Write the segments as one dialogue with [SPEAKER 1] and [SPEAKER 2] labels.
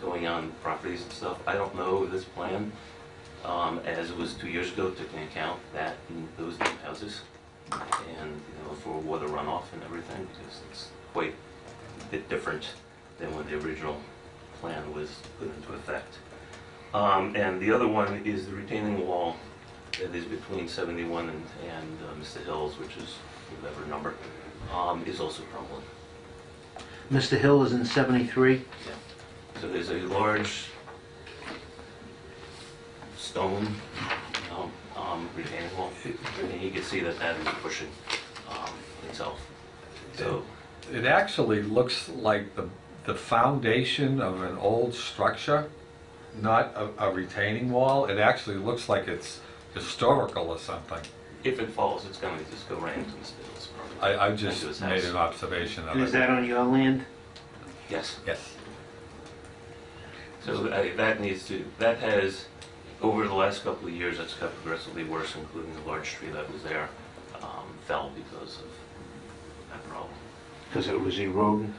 [SPEAKER 1] building on properties and stuff. I don't know this plan, um, as it was two years ago, took into account that and those new houses and, you know, for water runoff and everything, because it's quite a bit different than when the original plan was put into effect. Um, and the other one is the retaining wall that is between 71 and, and uh, Mr. Hills, which is whatever number, um, is also crumbling.
[SPEAKER 2] Mr. Hill is in 73.
[SPEAKER 1] So there's a large stone, you know, um, retaining wall, and you can see that that is pushing, um, itself. So,
[SPEAKER 3] It actually looks like the, the foundation of an old structure, not a, a retaining wall. It actually looks like it's historical or something.
[SPEAKER 1] if it falls, it's gonna just go right into Mr. Hills probably. Uh,
[SPEAKER 3] I, I
[SPEAKER 1] Into his
[SPEAKER 3] just
[SPEAKER 1] house.
[SPEAKER 3] made an observation
[SPEAKER 2] And is
[SPEAKER 3] of it.
[SPEAKER 2] that on your land?
[SPEAKER 1] Yes.
[SPEAKER 3] Yes.
[SPEAKER 1] So I- that needs to, that has, over the last couple of years, that's got progressively worse, including the large tree that was there, um, fell because of that problem.
[SPEAKER 2] Because it was eroding.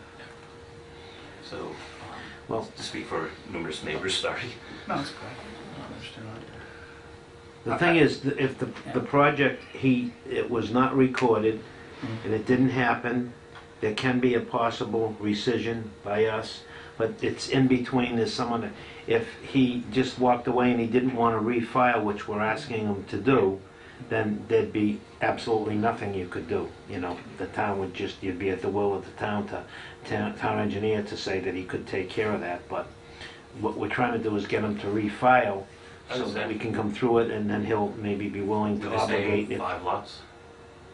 [SPEAKER 1] So, um,
[SPEAKER 2] Well-
[SPEAKER 1] to speak for numerous neighbors, sorry.
[SPEAKER 4] No, it's good. I understand that.
[SPEAKER 2] The thing is, th- if the, the project, he, it was not recorded, and it didn't happen, there can be a possible rescission by us, but it's in between, there's someone, that- if he just walked away and he didn't want to refile, which we're asking him to do, then there'd be absolutely nothing you could do, you know? The town would just, you'd be at the will of the town to, town town engineer to say that he could take care of that, but what we're trying to do is get him to refile, so that we can come through it, and then he'll maybe be willing
[SPEAKER 1] With
[SPEAKER 2] to
[SPEAKER 1] the
[SPEAKER 2] obligate
[SPEAKER 1] same
[SPEAKER 2] it.
[SPEAKER 1] five lots?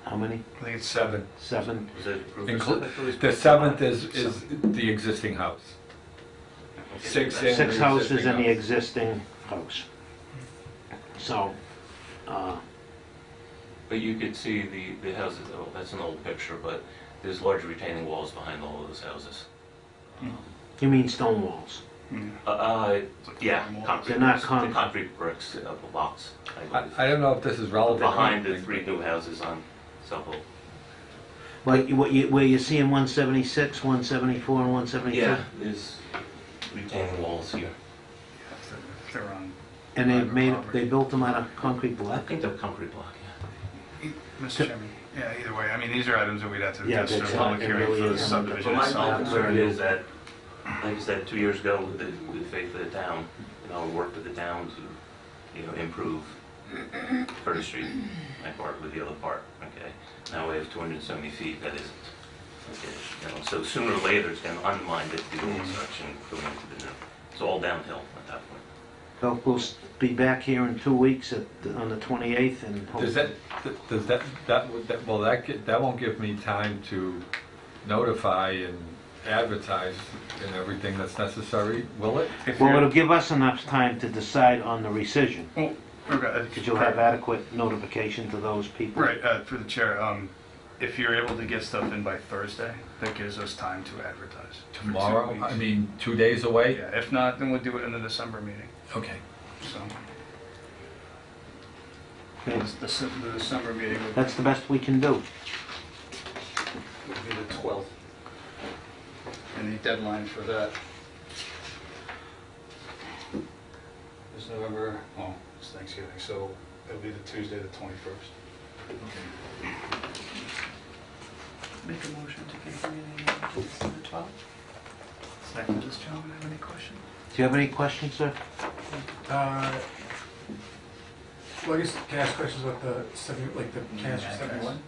[SPEAKER 2] How many?
[SPEAKER 4] I think it's
[SPEAKER 3] Seven.
[SPEAKER 2] Seven?
[SPEAKER 1] Was it approved?
[SPEAKER 3] Inclu- The seventh is, is the existing house. Six in-
[SPEAKER 2] Six
[SPEAKER 3] the
[SPEAKER 2] houses in the
[SPEAKER 3] existing house.
[SPEAKER 2] existing house. So, uh,
[SPEAKER 1] But you could see the, the houses, oh, that's an old picture, but there's large retaining walls behind all of those houses.
[SPEAKER 2] you mean stone walls?
[SPEAKER 3] Mm.
[SPEAKER 1] Uh, Uh, yeah, concrete.
[SPEAKER 2] They're not
[SPEAKER 1] bricks.
[SPEAKER 2] concrete.
[SPEAKER 1] The concrete bricks of the lots, I
[SPEAKER 3] I,
[SPEAKER 1] believe.
[SPEAKER 3] I don't know if this is relevant.
[SPEAKER 1] Behind the three new houses on South Oak.
[SPEAKER 2] Like you- what you, where you see in 176, 174, and 175?
[SPEAKER 1] Yeah, there's retaining walls here.
[SPEAKER 4] They're on.
[SPEAKER 2] And they've
[SPEAKER 4] private
[SPEAKER 2] made,
[SPEAKER 4] property.
[SPEAKER 2] they built them out of concrete
[SPEAKER 1] I
[SPEAKER 2] block?
[SPEAKER 1] think they're concrete block, yeah.
[SPEAKER 4] E- Mr. Chairman, yeah, either way, I mean, these are items that we'd have to
[SPEAKER 2] Yeah,
[SPEAKER 4] address in a
[SPEAKER 2] that's
[SPEAKER 4] public
[SPEAKER 2] not- it
[SPEAKER 4] hearing
[SPEAKER 2] really
[SPEAKER 4] for the
[SPEAKER 2] is.
[SPEAKER 4] subdivision
[SPEAKER 1] But my- my
[SPEAKER 4] itself.
[SPEAKER 1] concern is that, like I said, two years ago, with the, with the faith of the town, you know, we worked with the town to, you know, improve Curtis Street, my part with the other part, okay? Now we have two hundred and seventy feet, that isn't, okay? You know, so sooner or later, it's gonna unwind it, the old section going into the new. It's all downhill at that point.
[SPEAKER 2] Well, We'll s- be back here in two weeks at, on the 28th, and
[SPEAKER 3] Does
[SPEAKER 2] hope-
[SPEAKER 3] that, does that, that, would- that- well, that, get- that won't give me time to notify and advertise and everything that's necessary, will it?
[SPEAKER 4] If
[SPEAKER 2] well,
[SPEAKER 4] you're-
[SPEAKER 2] it'll give us enough time to decide on the rescission.
[SPEAKER 4] Well, Oh, okay,
[SPEAKER 2] Because you'll have adequate notification to those people.
[SPEAKER 4] Right, uh, through the chair, um, if you're able to get stuff in by Thursday, that gives us time to advertise. for two
[SPEAKER 3] Tomorrow,
[SPEAKER 4] weeks.
[SPEAKER 3] I mean, two days away?
[SPEAKER 4] Yeah, if not, then we'll do it in the December meeting,
[SPEAKER 3] Okay.
[SPEAKER 4] so.
[SPEAKER 2] Okay.
[SPEAKER 4] The Dece- the December meeting would
[SPEAKER 2] That's the best we can do.
[SPEAKER 4] would be the 12th. And the deadline for that is November, oh, it's Thanksgiving, so it'll be the Tuesday, the 21st.
[SPEAKER 5] Make a motion to continue the hearing to December 12th.
[SPEAKER 4] Second, does gentleman have any questions?
[SPEAKER 2] Do you have any questions, sir?
[SPEAKER 6] Uh, Well, I guess, can I ask questions about the seventy, like the cancer
[SPEAKER 4] Yeah, I guess.
[SPEAKER 6] seventy-one?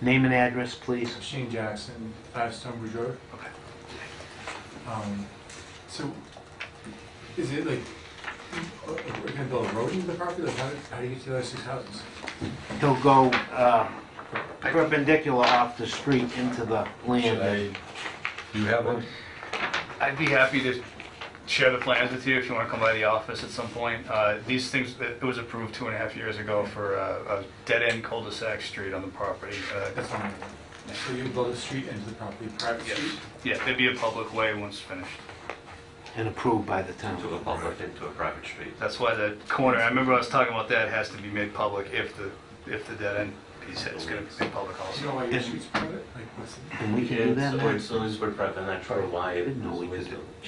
[SPEAKER 2] Name and address, please.
[SPEAKER 6] Shane Jackson, five Stonebridge Road.
[SPEAKER 4] Okay.
[SPEAKER 6] Um, So, is it like, uh, uh, we're gonna build a road into the property, like how, do- how do you get to the other six houses?
[SPEAKER 2] He'll go uh, perpendicular off the street into the
[SPEAKER 3] Should
[SPEAKER 2] land.
[SPEAKER 3] I, do you have one?
[SPEAKER 4] I'd be happy to share the plans with you if you want to come by the office at some point. Uh, These things, it was approved two and a half years ago for uh, a dead-end cul-de-sac street on the property. Uh,
[SPEAKER 6] That's what I'm wondering. So you build a street into the property, private
[SPEAKER 4] yes.
[SPEAKER 6] street?
[SPEAKER 4] Yeah, it'd be a public way once finished.
[SPEAKER 2] And approved by the town.
[SPEAKER 1] Into a public, into a private street.
[SPEAKER 4] That's why the corner, I remember I was talking about that, has to be made public if the, if the dead end piece is gonna be made public
[SPEAKER 6] Do
[SPEAKER 4] also.
[SPEAKER 6] you know why your
[SPEAKER 2] Yes.
[SPEAKER 6] street's private? Like, what's the?
[SPEAKER 2] And we can do that
[SPEAKER 1] It's,
[SPEAKER 2] now.
[SPEAKER 1] it's always, we're private, and I try to why.
[SPEAKER 2] Didn't know we
[SPEAKER 1] it's
[SPEAKER 2] could
[SPEAKER 1] always-
[SPEAKER 2] do it.